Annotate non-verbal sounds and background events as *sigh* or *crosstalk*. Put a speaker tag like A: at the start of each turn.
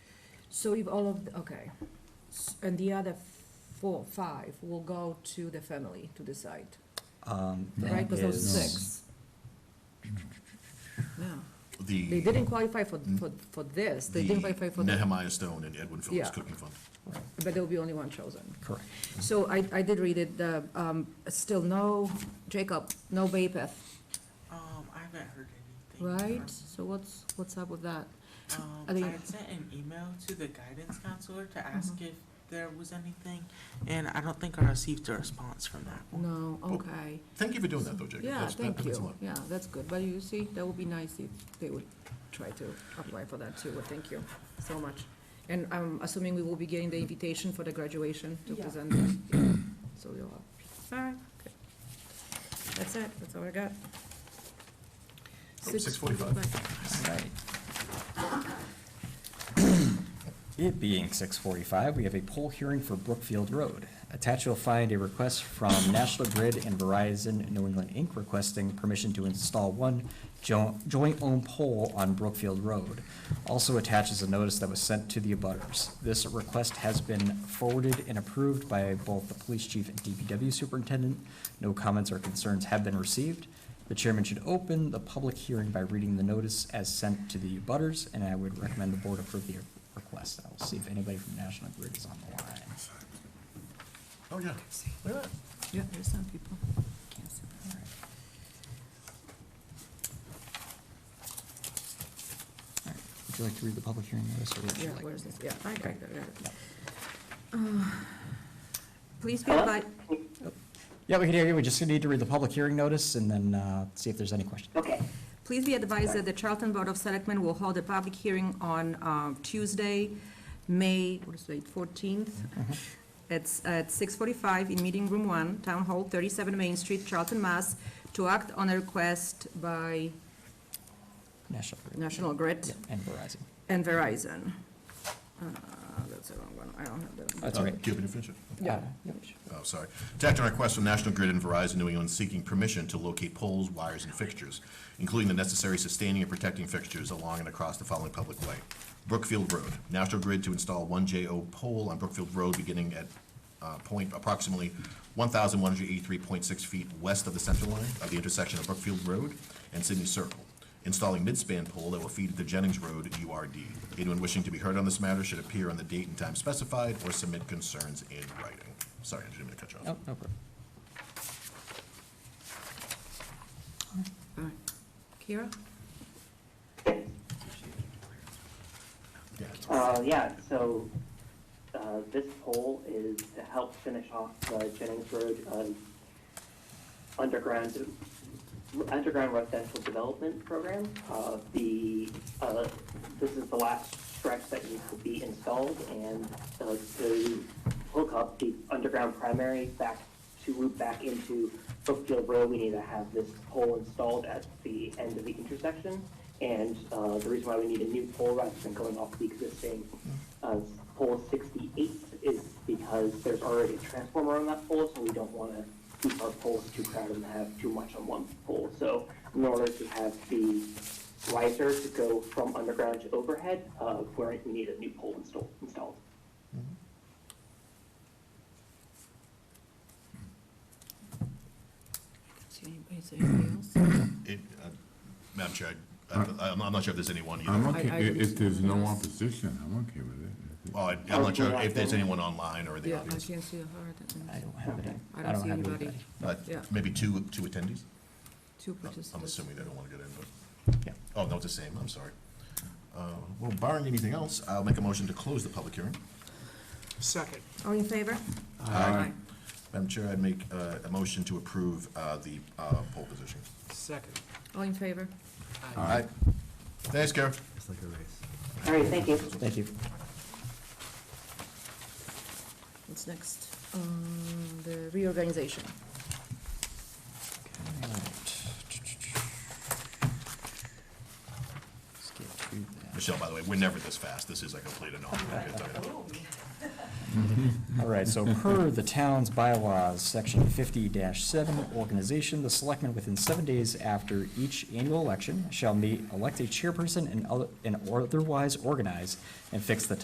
A: So if all of, the- okay, S- and the other four, five will go to the family to decide,
B: Um, that
A: right? Because those
B: is-
A: six. Yeah, they
C: The,
A: didn't qualify for, for, for this, they didn't qualify
C: the
A: for, the-
C: Nehemiah Stone and Edwin Phillips
A: Yeah.
C: Cooking Fund.
A: but there'll be only one chosen.
B: Correct.
A: So I, I did read it, the, um, still no, Jacob, no Bapath,
D: Um, I haven't heard anything.
A: right? So what's, what's up with that?
D: from- Um,
A: Are
D: I
A: they-
D: had sent an email to the guidance counselor to ask if there was anything, and I don't think I received a response from that one.
A: No, okay.
C: Thank you for doing that, though, Jacob.
A: Yeah,
C: That's- that-
A: thank
C: that means a
A: you.
C: lot.
A: Yeah, that's good. But you see, that would be nice if they would try to apply for that too. But thank you so much. And I'm assuming we will be getting the invitation for the graduation to
E: Yeah.
A: present. that. Yeah. So you'll have. All right. good. That's it. That's all I got.
C: Oh, 6:45.
B: Right. It being six forty-five, we have a poll hearing for Brookfield Road. Attached you'll find a request from National Grid and Verizon New England Inc. requesting permission to install one jo- joint-owned pole on Brookfield Road. Also attached is a notice that was sent to the abutters. This request has been forwarded and approved by both the police chief and DPW superintendent. No comments or concerns have been received. The chairman should open the public hearing by reading the notice as sent to the abutters, and I would recommend the board approve the request. I will see if anybody from National Grid is on the line.
C: Oh, yeah. Look at that.
A: Yeah, there's some people. Can't see.
B: All right. All right. Would you like to read the public hearing notice? or would you
A: Yeah,
B: like-
A: where's this? Yeah, I got it, I got it. Uh,
B: Yeah.
A: Please be advised,
B: Yeah, we can hear you. We just need to read the public hearing notice and then uh, see if there's any questions.
E: Okay,
A: Please be advised that the Charlton Board of Selectmen will hold a public hearing on uh, Tuesday, May, what is it, 14th?
B: Mm-hmm.
A: It's at 6:45 in Meeting Room 1, Town Hall, 37 Main Street, Charlton, Mass, to act on a request by
B: National Grid.
A: National Grid
B: Yeah, And Verizon.
A: and Verizon. Uh, That's the wrong one, I don't have that. one.
B: That's
C: Uh,
B: all right.
C: Give it a finish it.
B: Uh, Yeah.
C: Oh, sorry. To act on request from National Grid and Verizon New England seeking permission to locate poles, wires, and fixtures, including the necessary sustaining and protecting fixtures along and across the following public way. Brookfield Road, National Grid to install one JO pole on Brookfield Road beginning at uh, point approximately 1,183.6 feet west of the center line of the intersection of Brookfield Road and Sydney Circle, installing midspan pole that will feed the Jennings Road URD. Anyone wishing to be heard on this matter should appear on the date and time specified or submit concerns in writing. Sorry, I didn't mean to cut you
B: Oh,
C: off.
B: no problem.
A: All right. Kira?
C: Yeah, it's-
E: uh, yeah, so, uh, this poll is to help finish off uh, Jennings Road, um, underground, underground residential development program. Uh, the, uh, this is the last stretch that needs to be installed and, uh, to hook up the underground primary back to loop back into Brookfield Road, we need to have this pole installed at the end of the intersection. And, uh, the reason why we need a new pole rather than going off the existing, uh, pole sixty-eight is because there's already a transformer on that pole, so we don't wanna keep our poles too crowded and have too much on one pole. So in order to have the riser to go from underground to overhead, uh, we're, we need a new pole installed, installed.
A: See anybody, is there anybody
B: *coughs*
A: else?
C: it, uh, Madam Chair, I- I'm I'm not sure if there's anyone either.
F: I'm
A: I-
F: okay,
A: I
F: if,
A: wouldn't
F: if there's no
A: know.
F: opposition, I'm okay with it.
C: Well, Oh, I- I'm not sure if there's anyone online or in the
A: Yeah, I
C: audience.
A: can't see her, that
B: I
A: one.
B: don't have it.
A: I don't see
B: have
A: anybody.
C: Uh,
A: Yeah.
C: Maybe two, two attendees?
A: two
C: I'm-
A: participants.
C: I'm assuming they don't want to get in, but,
B: Yeah.
C: oh, no, it's the same, I'm sorry. Uh, Well, barring anything else, I'll make a motion to close the public hearing.
D: Second.
A: All in favor?
C: Aye. Madam Chair, I'd make uh, a motion to approve uh, the uh, poll position.
D: Second.
A: All in favor?
C: Aye. Thanks, Kara.
E: All right, thank you.
B: Thank you.
A: What's next? Um, The reorganization.
B: Let's get through that.
C: Michelle, by the way, we're never this fast. This is a complete anomaly.
B: All right, so per the town's bylaws, section fifty seven, organization, the selectmen within seven days after each annual election shall meet, elect a chairperson and other, and otherwise organize and fix the